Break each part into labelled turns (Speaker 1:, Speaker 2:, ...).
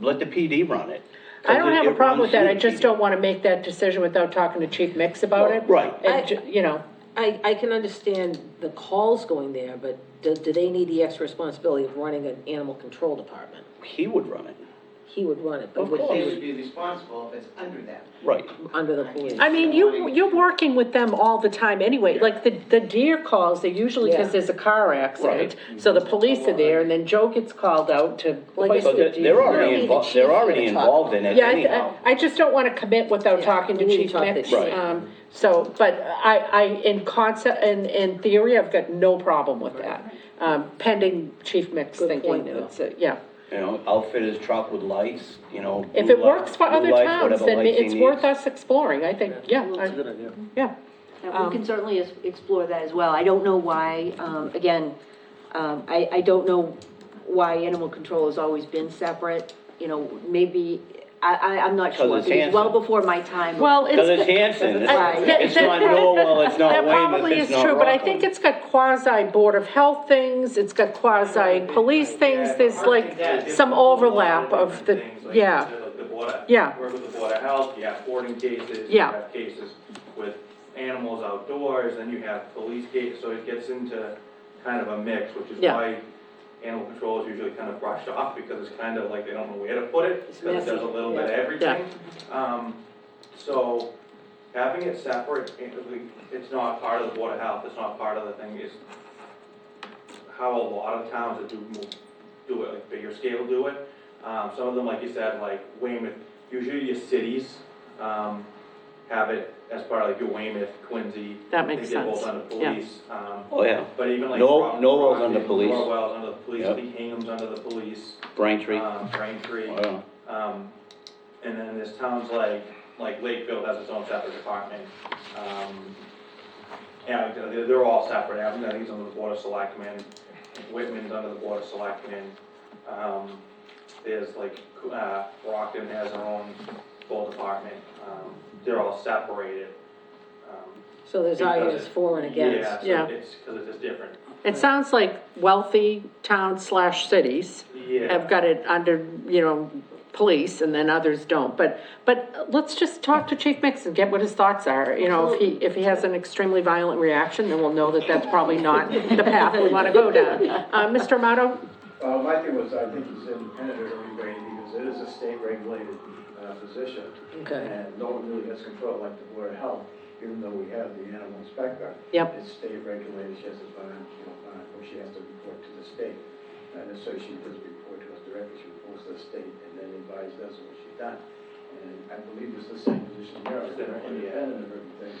Speaker 1: let the PD run it.
Speaker 2: I don't have a problem with that,
Speaker 1: It
Speaker 2: I
Speaker 1: runs through
Speaker 2: just
Speaker 1: the PD.
Speaker 2: don't wanna make that decision without talking to Chief Mix about it.
Speaker 1: Right.
Speaker 2: And, ju- you know,
Speaker 3: I, I can understand the calls going there, but do, do they need the extra responsibility of running an animal control department?
Speaker 1: He would run it,
Speaker 3: He would run it, but
Speaker 1: Of
Speaker 3: would
Speaker 1: course.
Speaker 4: They
Speaker 3: they,
Speaker 4: would be responsible if it's under them.
Speaker 1: right.
Speaker 3: under the police?
Speaker 2: I mean, you, you're working with them all the time anyway, like the, the deer calls, they usually,
Speaker 3: Yeah.
Speaker 2: cause there's a car accident, so the police are there, and then Joe gets called out to
Speaker 3: Like I
Speaker 2: hoist
Speaker 1: So
Speaker 2: the
Speaker 1: they're, they're
Speaker 2: deer.
Speaker 3: Really,
Speaker 1: already
Speaker 3: the
Speaker 1: involved,
Speaker 3: chief
Speaker 1: they're
Speaker 3: is
Speaker 1: already
Speaker 3: gonna talk
Speaker 1: involved in it
Speaker 2: Yeah, I-
Speaker 1: anyhow.
Speaker 2: I, I just don't wanna commit without
Speaker 3: Yeah,
Speaker 2: talking to
Speaker 3: we need to
Speaker 2: Chief
Speaker 3: talk to
Speaker 2: Mix.
Speaker 3: Chief.
Speaker 2: Um, So, but I, I, in concept, in, in theory, I've got no problem with that, um, pending Chief Mix
Speaker 3: Good
Speaker 2: thinking,
Speaker 3: point, though.
Speaker 2: it's, a- yeah.
Speaker 1: You know, outfit his truck with lights, you know.
Speaker 2: If
Speaker 1: blue
Speaker 2: it
Speaker 1: light-
Speaker 2: works for
Speaker 1: blue
Speaker 2: other
Speaker 1: lights,
Speaker 2: towns,
Speaker 1: whatever
Speaker 2: then
Speaker 1: lights he
Speaker 2: it's worth
Speaker 1: needs.
Speaker 2: us exploring, I think, yeah. I-
Speaker 5: idea.
Speaker 2: Yeah,
Speaker 6: And we can certainly es- explore that as well. I don't know why, um, again, um, I, I don't know why animal control has always been separate, you know, maybe, I, I, I'm
Speaker 1: 'Cause
Speaker 6: not sure.
Speaker 1: it's
Speaker 6: It was well
Speaker 1: Hanson.
Speaker 6: before my time.
Speaker 2: well, it's.
Speaker 1: Cause it's Hanson,
Speaker 2: I-
Speaker 1: it's
Speaker 2: that-
Speaker 1: it's
Speaker 2: that-
Speaker 1: not Norwell, it's not
Speaker 2: That
Speaker 1: Weymouth,
Speaker 2: probably
Speaker 1: it's
Speaker 2: is
Speaker 1: not
Speaker 2: true, but I
Speaker 1: Rockland.
Speaker 2: think it's got quasi Board of Health things, it's got quasi police things, there's like some overlap of the, yeah.
Speaker 7: The Board of-
Speaker 2: Yeah.
Speaker 7: Work with the Board of Health, you have boarding cases.
Speaker 2: Yeah.
Speaker 7: You have cases with animals outdoors, then you have police cases, so it gets into kind of a mix, which is
Speaker 2: Yeah.
Speaker 7: why animal control is usually kind of brushed off, because it's kind of like they don't know where to put it,
Speaker 3: It's
Speaker 7: because it does a
Speaker 3: messy,
Speaker 7: little bit of
Speaker 3: yeah.
Speaker 7: everything. Um, so having it separate, it- it's not part of the Board of Health, it's not part of the thing, it's how a lot of towns that do move, do it, like bigger scale do it. Um, some of them, like you said, like Weymouth, usually your cities, um, have it as part of like your Weymouth, Quincy.
Speaker 2: That makes sense.
Speaker 7: I think they're both
Speaker 2: Yeah.
Speaker 7: under police, um,
Speaker 1: Oh, yeah,
Speaker 7: but even like.
Speaker 1: Nor-
Speaker 7: Rock-
Speaker 1: Norwell's under
Speaker 7: Rockland,
Speaker 1: police.
Speaker 7: Norwell's under the police,
Speaker 1: Yep.
Speaker 7: Bingham's under the police,
Speaker 1: Braintree, oh,
Speaker 7: um, Braintree.
Speaker 1: yeah.
Speaker 7: Um, and then there's towns like, like Lakeville has its own separate department. Um, yeah, they're, they're all separate, I think it's under the Board of Selectmen, Whitman's under the Board of Selectmen. Um, there's like, uh, Brockton has their own full department, um, they're all separated. Um,
Speaker 3: So there's arguments for and against.
Speaker 7: Yeah,
Speaker 2: yeah.
Speaker 7: so it's, cause it's just different.
Speaker 2: It sounds like wealthy towns slash cities
Speaker 7: Yeah.
Speaker 2: have got it under, you know, police, and then others don't, but, but let's just talk to Chief Mix and get what his thoughts are, you know, if he, if he has an extremely violent reaction, then we'll know that that's probably not the path we wanna go down. Uh, Mr. Amato?
Speaker 5: Uh, my thing was, I think it's independent of everybody, because it is a state-regulated, uh, position.
Speaker 3: Okay.
Speaker 5: And no one really has control, like the Board of Health, even though we have the animal inspector.
Speaker 2: Yep.
Speaker 5: It's state-regulated, she has to find, you know, find, or she has to report to the state. And so she doesn't report to us directly, she reports to the state, and then advises us what she's done. And I believe it's the same position here, it's independent of everything,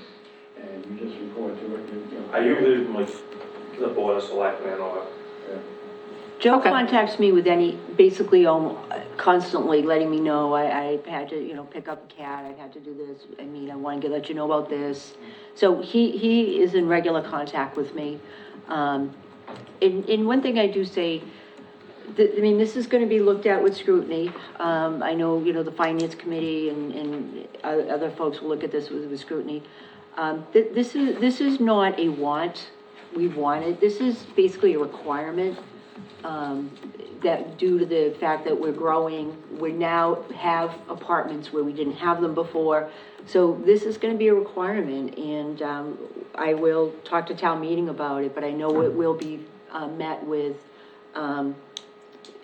Speaker 5: and you just report to it, you you know.
Speaker 7: I usually do like the Board of Selectmen or
Speaker 5: Yeah.
Speaker 6: Joe
Speaker 2: Okay.
Speaker 6: contacts me with any, basically almo- constantly letting me know, I, I had to, you know, pick up a cat, I've had to do this, I mean, I wanted to let you know about this. So he, he is in regular contact with me. Um, and, and one thing I do say, th- I mean, this is gonna be looked at with scrutiny. Um, I know, you know, the finance committee and, and o- other folks will look at this with, with scrutiny. Um, th- this is, this is not a want, we want it, this is basically a requirement um, that due to the fact that we're growing, we now have apartments where we didn't have them before. So this is gonna be a requirement, and, um, I will talk to town meeting about it, but I know it will be, uh, met with, um,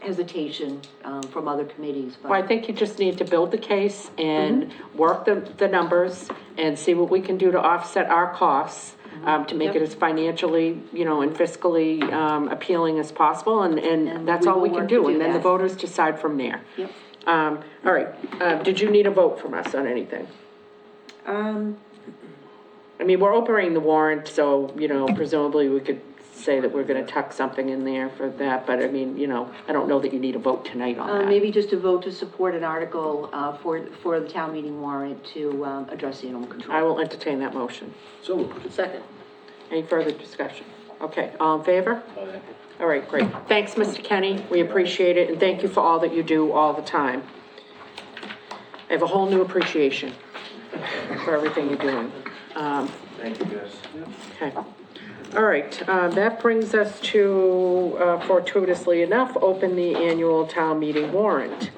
Speaker 6: hesitation, um, from other committees, but.
Speaker 2: Well, I think you just need to build the case and
Speaker 6: Mm-hmm.
Speaker 2: work the, the numbers and see what we can do to offset our costs,
Speaker 6: Mm-hmm.
Speaker 2: um, to make it as financially, you know, and fiscally, um, appealing as possible, and, and
Speaker 6: And
Speaker 2: that's
Speaker 6: we
Speaker 2: all we
Speaker 6: will
Speaker 2: can
Speaker 6: work to
Speaker 2: do,
Speaker 6: do
Speaker 2: and then the
Speaker 6: that.
Speaker 2: voters decide from there.
Speaker 6: Yep.
Speaker 2: Um, all right, uh, did you need a vote from us on anything?
Speaker 6: Um,
Speaker 2: I mean, we're opening the warrant, so, you know, presumably we could say that we're gonna tuck something in there for that, but I mean, you know, I don't know that you need a vote tonight on
Speaker 6: uh,
Speaker 2: that.
Speaker 6: maybe just a vote to support an article, uh, for, for the town meeting warrant to, um, address the animal control.
Speaker 2: I will entertain that motion.
Speaker 5: So,
Speaker 3: Second.
Speaker 2: Any further discussion? Okay, all in favor? All right, great. Thanks, Mr. Kenny. We appreciate it, and thank you for all that you do all the time. I have a whole new appreciation for everything you're doing. Um,
Speaker 7: Thank you, guys.
Speaker 2: Okay. All right, um, that brings uh, us to, uh, fortuitously enough, open the annual town meeting warrant.